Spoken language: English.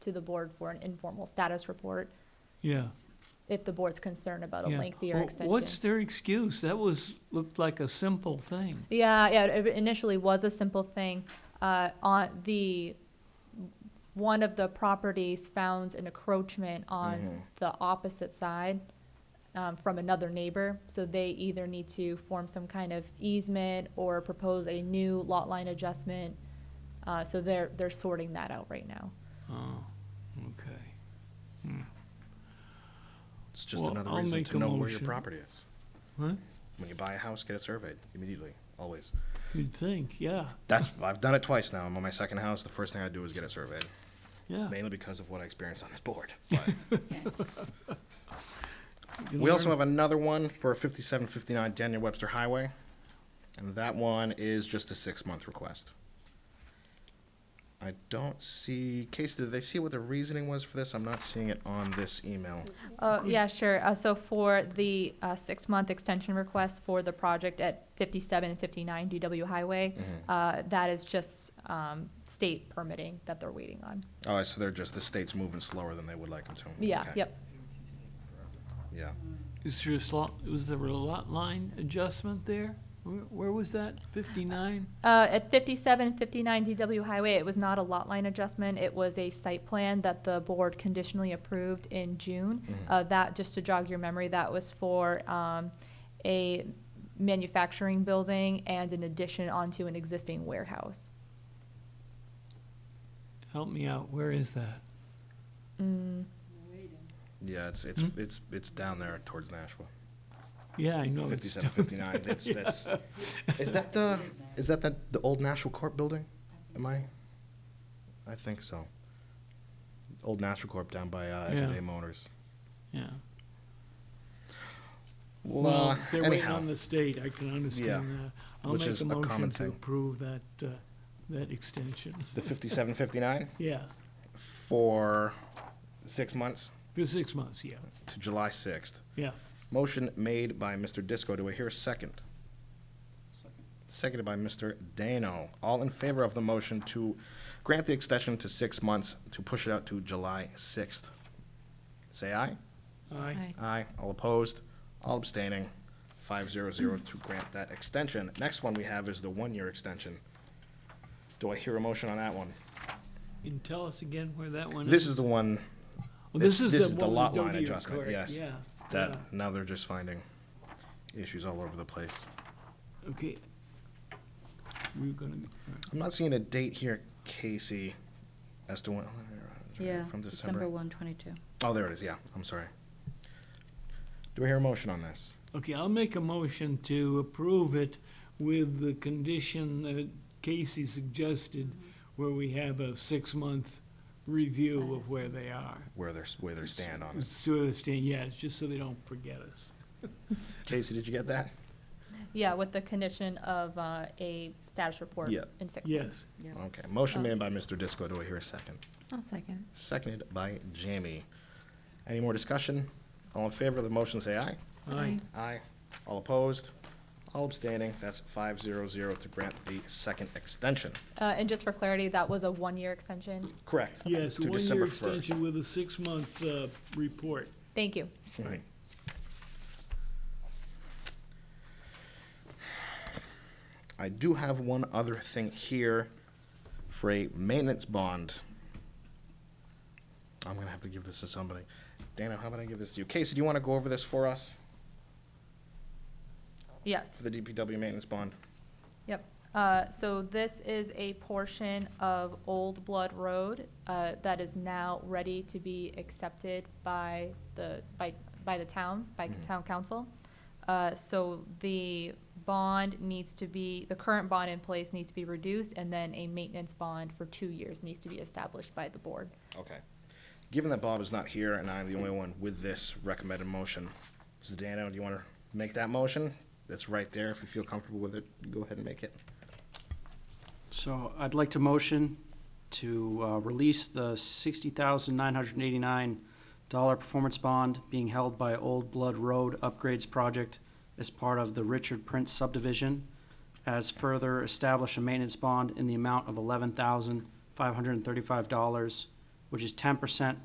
to the board for an informal status report Yeah. if the board's concerned about a yeah. lengthier Well, extension. What's their excuse? That was, looked like a simple thing. Yeah, yeah, it initially was a simple thing. Uh, on the, one of the properties found an encroachment on the opposite side um, from another neighbor, so they either need to form some kind of easement or propose a new lot line adjustment. Uh, so they're, they're sorting that out right now. Oh, okay. It's just Well, another I'll reason make to a know where your motion. property is. What? When you buy a house, get it surveyed immediately, always. You'd think, yeah, That's, I've done it twice now. I'm on my second house. The first thing I do is get it surveyed, yeah. mainly because of what I experienced on this board. But we also have another one for 5759 Daniel Webster Highway. And that one is just a six month request. I don't see, Casey, did they see what the reasoning was for this? I'm not seeing it on this email. Uh, yeah, sure. Uh, so for the, uh, six-month extension request for the project at fifty-seven and fifty-nine DW Highway, uh, that is just, um, state permitting that they're waiting on. Oh, so they're just, the state's moving slower than they would like them to. Yeah, Okay. yep. Yeah. Is there a slot, was there a lot line adjustment there? Where, where was that? Fifty-nine? Uh, at fifty-seven and fifty-nine DW Highway, it was not a lot line adjustment. It was a site plan that the board conditionally approved in June. Uh, that, just to jog your memory, that was for, um, a manufacturing building and an addition onto an existing warehouse. Help me out, where is that? Yeah, it's it's Hmm? it's it's down there towards Nashville. Yeah, I know. it's- Fifty-seven, fifty-nine. That's that's. Is that the is that the the old Nashville Corp building? Am I? I think so. Old Nashville Corp down by uh, Yeah. F&J Motors. Yeah. Well, Well, uh, if they're waiting anyhow, on the state, I can understand that. I'll which make is a a common motion to thing. approve that, uh, that extension. the fifty-seven, fifty-nine Yeah, for six months for six months, yeah, to July sixth. yeah. Motion made by Mr. Disco. Do I hear a second? Seconded by Mr. Dano. All in favor of the motion to grant the extension to six months to push it out to July sixth? Say aye. Aye. Aye. All opposed? All abstaining? Five zero zero to grant that extension. Next one we have is the one-year extension. Do I hear a motion on that one? And tell us again where that one is. This is the one Well, this- this is one the with lot line W, adjustment, correct, yes. Yeah. that yeah. now they're just finding issues all over the place. Okay. We're gonna, I'm not seeing a date here, Casey, as to when, Yeah, from December December. 1, 22. Oh, there it is, yeah, I'm sorry. Do we hear a motion on this? okay, I'll make a motion to approve it with the condition that Casey suggested, where we have a six-month review of where they are. Where they're, where they stand on it. So they stay- yeah, it's just so they don't forget us. Casey, did you get that? Yeah, with the condition of uh, a status report Yeah. in six months. Yes, Okay, motion made by Mr. Disco, do I hear a second? I'll second. Seconded by Jamie. Any more discussion? All in favor of the motion, say aye. aye. Aye. All opposed? All abstaining, that's five zero zero to grant the second extension. Uh, And just for clarity, that was a one-year extension. Correct. Yes, To December one-year 1st. extension with a six-month, uh, report. Thank you. Right. I do have one other thing here for a maintenance bond. I'm gonna have to give this to somebody. Dana, how about I give this to you? Casey, do you wanna go over this for us, Yes, for the DPW maintenance bond? yep. Uh, So this is a portion of Old Blood Road uh, that is now ready to be accepted by the, by, by the town, by town council. Uh, So the bond needs to be, the current bond in place needs to be reduced, and then a maintenance bond for two years needs to be established by the board. Okay. Given that Bob is not here and I'm the only one with this recommended motion, so Dana, do you wanna make that motion? That's right there, if you feel comfortable with it, go ahead and make it. So I'd like to motion to uh, release the sixty thousand nine hundred and eighty-nine dollar performance bond being held by Old Blood Road Upgrades Project as part of the Richard Prince subdivision, as further establish a maintenance bond in the amount of eleven thousand five hundred and thirty-five dollars which is ten percent